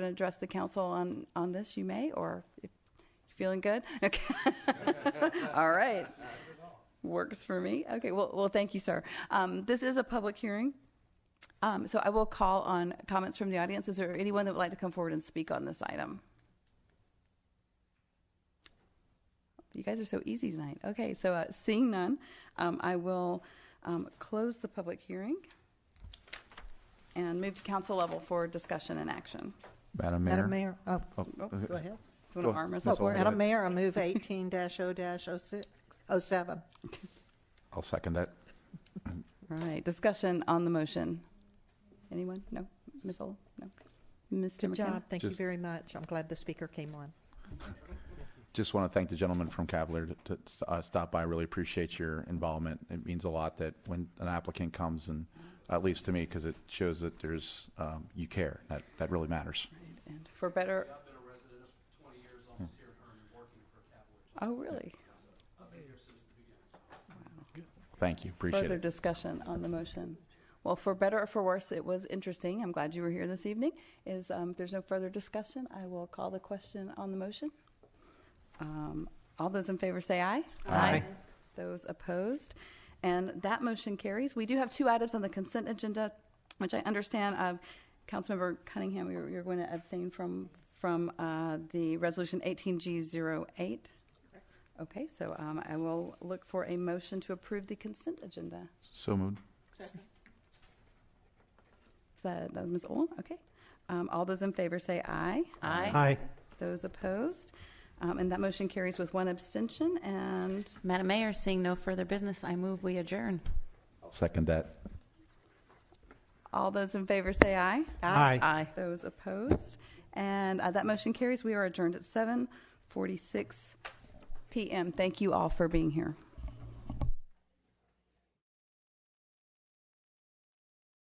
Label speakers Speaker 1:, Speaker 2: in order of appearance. Speaker 1: to address the council on, on this, you may, or if you're feeling good. Okay. All right. Works for me. Okay, well, well, thank you, sir. Um, This is a public hearing. Um, So I will call on comments from the audience. Is there anyone that would like to come forward and speak on this item? You guys are so easy tonight. Okay, so uh, seeing none, um, I will um, close the public hearing and move to council level for discussion and action.
Speaker 2: Madam Mayor?
Speaker 3: Madam Mayor, oh,
Speaker 2: Oh,
Speaker 3: go ahead.
Speaker 1: Do you want
Speaker 2: Go-
Speaker 1: to arm
Speaker 2: Ms.
Speaker 1: wrestle for it?
Speaker 2: Olmsted.
Speaker 3: Oh, Madam Mayor, I move eighteen 0 06 07.
Speaker 2: I'll second that.
Speaker 1: All right, discussion on the motion. Anyone? No? Ms. Old? No? Mr.
Speaker 3: Good
Speaker 1: McKenna?
Speaker 3: job, thank you
Speaker 2: Just-
Speaker 3: very much. I'm glad the speaker came on.
Speaker 2: Just want to thank the gentleman from Cavalier to, to uh, stop by. Really appreciate your involvement. It means a lot that when an applicant comes and, at least to me, because it shows that there's, um, you care. That, that really matters.
Speaker 1: And for better,
Speaker 4: I've been a resident of 20 years almost here in Herndon, working for Cavaliers.
Speaker 1: oh, really?
Speaker 4: I've been here since the beginning.
Speaker 2: Thank you. Appreciate
Speaker 1: Further
Speaker 2: it.
Speaker 1: discussion on the motion. Well, for better or for worse, it was interesting. I'm glad you were here this evening. Is, um, if there's no further discussion, I will call the question on the motion. Um, All those in favor say aye.
Speaker 2: Aye.
Speaker 1: Those opposed? And that motion carries. We do have two items on the consent agenda, which I understand, uh, Councilmember Cunningham, you're, you're going to abstain from, from uh, the Resolution 18G08. Okay, so um, I will look for a motion to approve the consent agenda.
Speaker 2: So moved.
Speaker 1: Is that, that was Ms. Ohl? Okay. Um, All those in favor say aye.
Speaker 4: Aye.
Speaker 1: Those opposed? Um, And that motion carries with one abstention, and
Speaker 5: Madam Mayor, seeing no further business, I move we adjourn.
Speaker 2: Second that.
Speaker 1: all those in favor say aye.
Speaker 5: Aye.
Speaker 1: Those opposed? And uh, that motion carries. We are adjourned at 7:46 PM. Thank you all for being here.